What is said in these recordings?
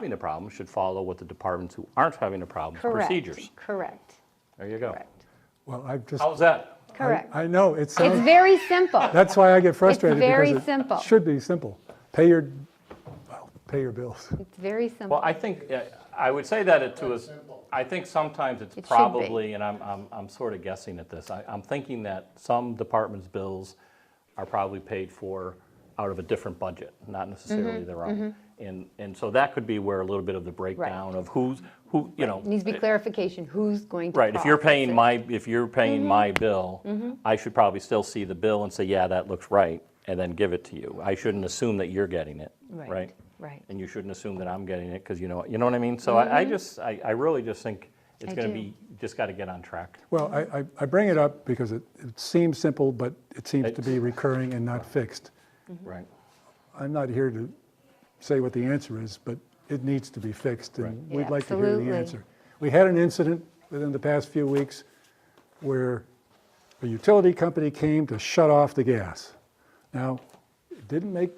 having a problem should follow what the departments who aren't having a problem procedures. Correct, correct, There you go. correct, Well, I've just, How's that? I- correct. I know, it It's sounds, very simple. that's why I get frustrated. because very it simple. Should be simple. Pay your, well, pay your bills. It's very Well, simple. I think, uh, I would say that it to us, I think sometimes it's It should be. probably, and I'm, I'm, I'm sort of guessing at this, I, I'm thinking that some departments' bills are probably paid for out of a different budget, not Mm-hmm. necessarily their own. And, and so that could be where a little bit of the breakdown of who's, who, you know. Needs to be clarification, who's going to Right, if you're process paying it. my, if you're Mm-hmm. paying my bill, I should probably still see the bill and say, yeah, that looks right, and then give it to you. I shouldn't assume that you're getting it, right? Right, And you shouldn't assume that I'm getting it, because you know, you know what I mean? So I, I just, I, I really just think it's Mm-hmm. I gonna do. be, just gotta get on track. Well, I, I- I bring it up because it it seems simple, but it seems to be recurring and not fixed. Mm-hmm. Right. I'm not here to say what the answer is, but it needs to be fixed, and Right. we'd like to hear Absolutely. the answer. We had an incident within the past few weeks where a utility company came to shut off the gas. Now, it didn't make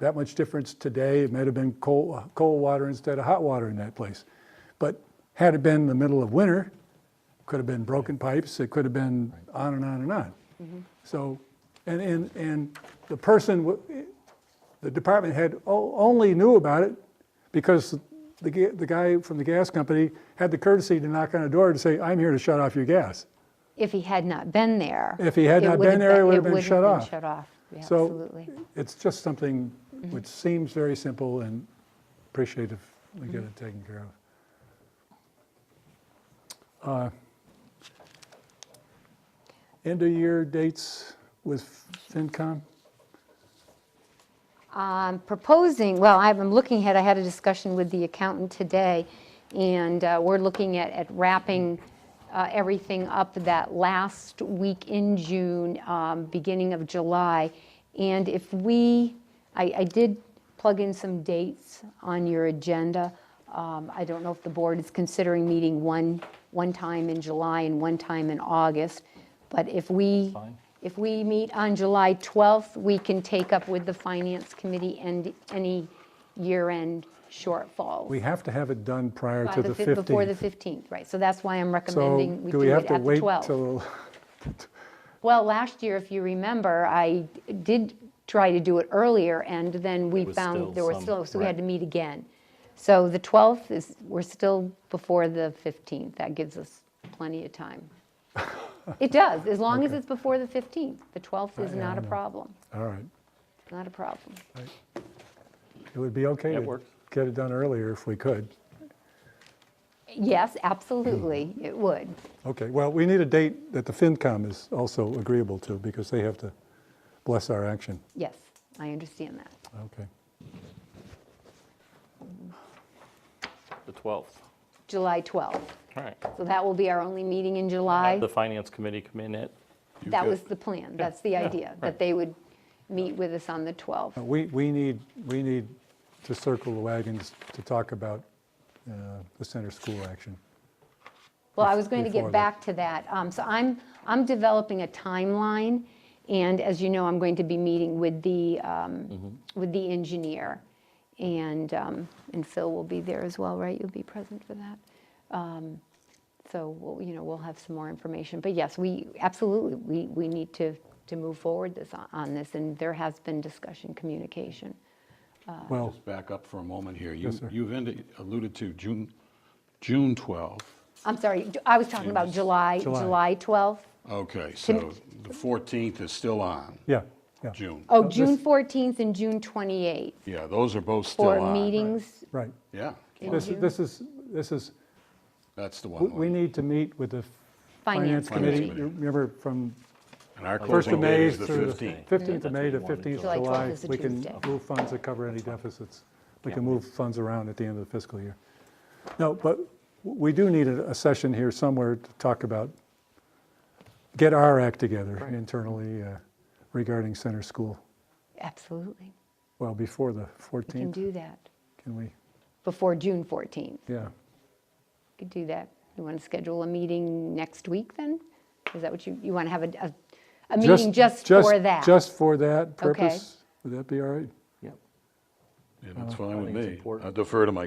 that much difference today. It might have been cold, cold water instead of hot water in that place. But had it been the middle of winter, could have been broken pipes, it could have been on and on and on. So, and, and, and the person, w- the department head o- only knew about it because the, ga- the guy from the gas company had the courtesy to knock on a door to say, I'm here to shut off your gas. if he had not been there. If he had it not would've been there, it would've been wouldn't shut have off. Shut off, Yeah, So- absolutely. It's just something Mm-hmm. which seems very simple and appreciate if we get Mm-hmm. it taken care of. Uh, End of year dates with FinCom? I'm proposing, well, I'm I'm looking ahead, I had a discussion with the accountant today, and uh, we're looking at at wrapping uh, everything up that last week in June, um, beginning of July. And if we, I I did plug in some dates on your agenda. Um, I don't know if the board is considering meeting one, one time in July and one time in August, but if we, Fine. if we meet on July 12th, we can take up with the Finance Committee and any year-end shortfalls. We have to have it done prior By to the fif- Before the 15th. 15th, right, so that's why I'm So recommending we do we do have it to at the wait 12th. till, Well, last year, if you remember, I did try to do it earlier, and then we was still found there were some- still, so we had right. to meet again. So the 12th is, we're still before the 15th, that gives us plenty of time. It does, as long as it's before the 15th, the 12th is yeah, not I a know. problem, all right. not a problem. It would be okay That to works. get it done earlier if we could. Yes, absolutely, it would. Okay, well, we need a date that the FinCom is also agreeable to because they have to bless our action. Yes, I understand that. Okay. The 12th. July 12th. All right. So that will be our only meeting in Have July. the finance committee come in at, That was the plan, that's the idea, that they would meet with us on the 12th. We, we need, we need to circle the wagons to talk about uh, the center school action. Well, I was going to Before get that. back to that. Um, So I'm, I'm developing a timeline, and as you know, I'm going to be meeting with the, um, Mm-hmm. with the engineer, and, um, and Phil will be there as well, right? You'll be present for that? Um, So, we'll you know, we'll have some more information, but yes, we, absolutely, we, we need to, to move forward this, on this, and there has been discussion, communication. Well, Just back up for a moment here. You- Oh. Yes, sir. You've indi- alluded to June, June 12th. I'm sorry, I was talking about July, July. July 12th? Okay, so the 14th is still on, yeah, yeah, June. Oh, this- June 14th and June 28th. Yeah, those are both still on. for meetings, right. Yeah, In This, June? this is, this is, that's the we- one. we need to meet with the Finance Finance Committee. Committee. You Remember, from And our 1st of closing date May is the through the 15th. 15th Yeah, of May to that's what we 15th wanted. of July July. 12th is a We can Tuesday. move funds that cover any deficits. We can move funds around at the end of the fiscal year. No, but we do need a a session here somewhere to talk about, get our act together internally uh, regarding center school. absolutely. Well, before the We can 14th, do that can we? before June 14th. We Yeah. Could do that. You want to schedule a meeting next week then? Is that what you, you want to have a, a- a meeting just for that? Just for that purpose? Would that be all right? yep, and that's fine with think it's me. Uh, important. I defer to my